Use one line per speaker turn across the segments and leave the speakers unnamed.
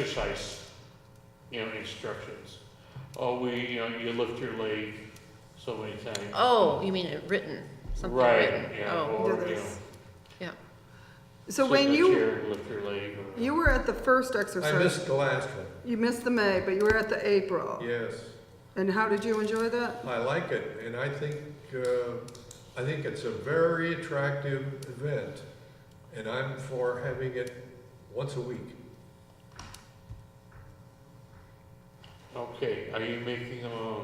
exercise, you know, instructions. Oh, we, you know, you lift your leg so many times.
Oh, you mean it written, something
Right,
written?
yeah,
Oh,
or,
Yeah,
you know,
that's-
yeah.
So
sit in
when
a
you,
chair and Lift your leg. or-
you were at the first
I
exercise,
missed the last one,
you missed the May, but you were at the April.
yes.
And how did you enjoy that?
I like it, and I think, uh, I think it's a very attractive event, and I'm for having it once a week.
Okay, are you making a,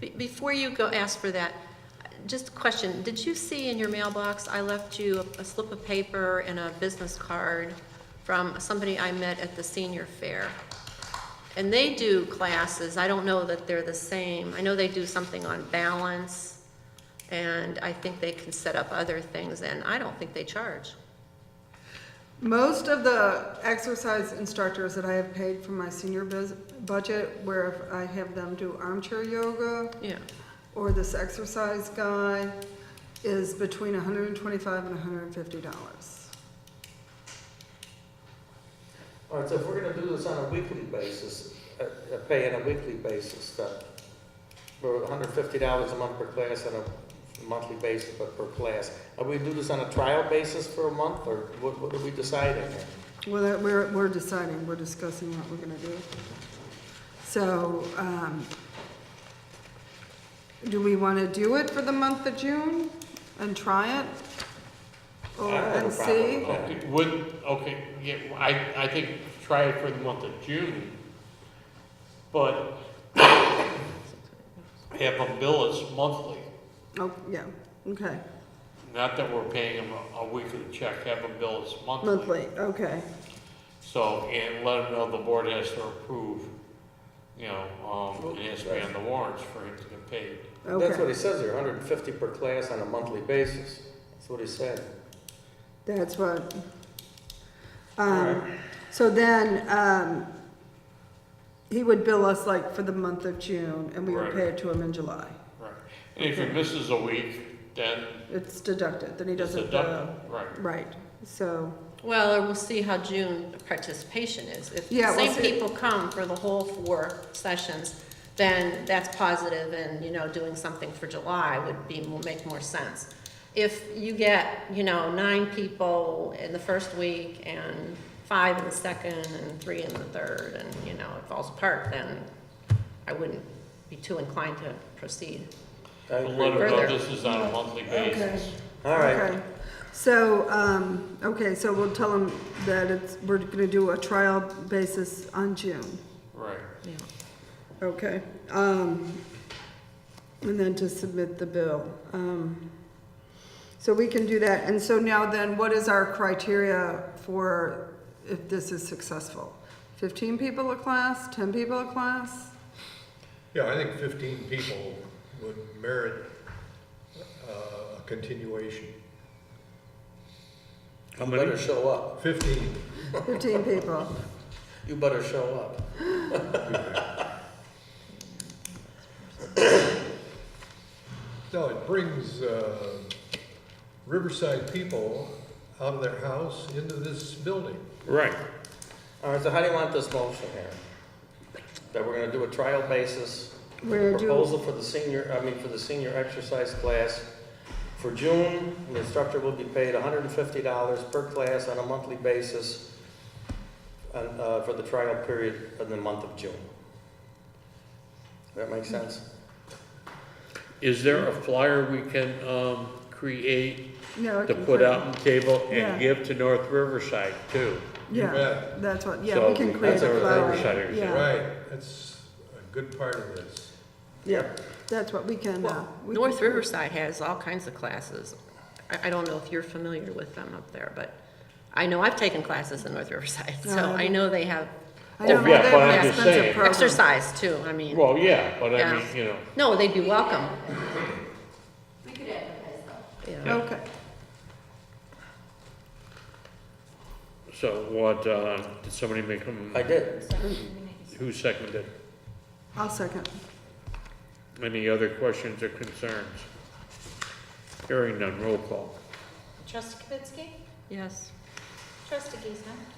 Be- Before you go ask for that, just a question, did you see in your mailbox, I left you a- a slip of paper and a business card from somebody I met at the senior fair? And they do classes, I don't know that they're the same. I know they do something on balance, and I think they can set up other things, and I don't think they charge.
Most of the exercise instructors that I have paid from my senior bus- budget, where if I have them do armchair yoga
Yeah.
or this exercise guy, is between $125 and $150.
All right, so if we're gonna do this on a weekly basis, uh, uh, pay on a weekly basis, then we're hundred fifty dollars a month per class on a monthly basis, but per class. Are we do this on a trial basis for a month, or what, what are we deciding here?
Well, that- we're, we're deciding, we're discussing what we're gonna do. So, um, do we wanna do it for the month of June and try it? Or,
I don't have a
and see?
problem with that.
okay, wouldn't, okay, yeah, I, I think try it for the month of June. But have them bill us monthly.
Oh, yeah, okay,
Not that we're paying them a- a weekly check, have them bill us monthly.
monthly, okay,
So, and let them know the board has to approve, you know, um, it has to be on the warrants for him to get paid.
That's what
okay.
he says here, hundred and fifty per class on a monthly basis. That's what he said.
That's what,
Alright.
um, so then, um, he would bill us like for the month of June and we would
Right.
pay it to him in July.
Right. And if he misses a week, then
It's deducted, then he
it's
doesn't,
deducted,
uh,
right?
right, so.
Well, or we'll see how June participation is. If the
Yeah, we'll
same
see.
people come for the whole four sessions, then that's positive and, you know, doing something for July would be, will make more sense. If you get, you know, nine people in the first week and five in the second and three in the third and, you know, it falls apart, then I wouldn't be too inclined to proceed.
I
But
agree
Let
with
them know
that.
this is on a monthly basis.
All right,
Okay, so, um, okay, so we'll tell them that it's, we're gonna do a trial basis on June,
Right.
Yeah.
okay? Um, and then to submit the bill. Um, so we can do that, and so now then, what is our criteria for if this is successful? Fifteen people a class, ten people a class?
Yeah, I think fifteen people would merit uh, a continuation.
you better show up.
Fifteen.
Fifteen people,
You better show up.
No, it brings uh, Riverside people out of their house into this building.
Right.
All right, so how do you want this motion here? That we're gonna do a trial basis,
We're doing-
proposal for the senior, I mean, for the senior exercise class. For June, the instructor will be paid hundred and fifty dollars per class on a monthly basis and, uh, for the trial period in the month of June. That make sense?
Is there a flyer we can, um, create
no. I
to
can
put
create-
out on the table
Yeah.
and give to North Riverside too?
You
Yeah,
bet.
that's what, yeah,
So
we can
that's
create a
our
flyer,
Riverside,
yeah.
Right, that's a good part of this.
Yep, that's what we can, uh.
Well,
we
North
can-
Riverside has all kinds of classes. I, I don't know if you're familiar with them up there, but I know I've taken classes in North Riverside, so
No, Oh, I
I know they have
I don't know,
Oh, Yeah,
they
but
have
I'm
an
just
expensive
saying.
program.
exercise too, I mean.
Well, yeah, but I
Yeah.
mean, you know,
No, they'd be welcome. We could advertise
Yeah.
Okay,
so what, uh, did somebody make them,
I did.
who seconded?
I'll second.
Any other questions or concerns? Hearing none, roll call.
Trustee Kibitsky?
Yes.
Trustee Giesman?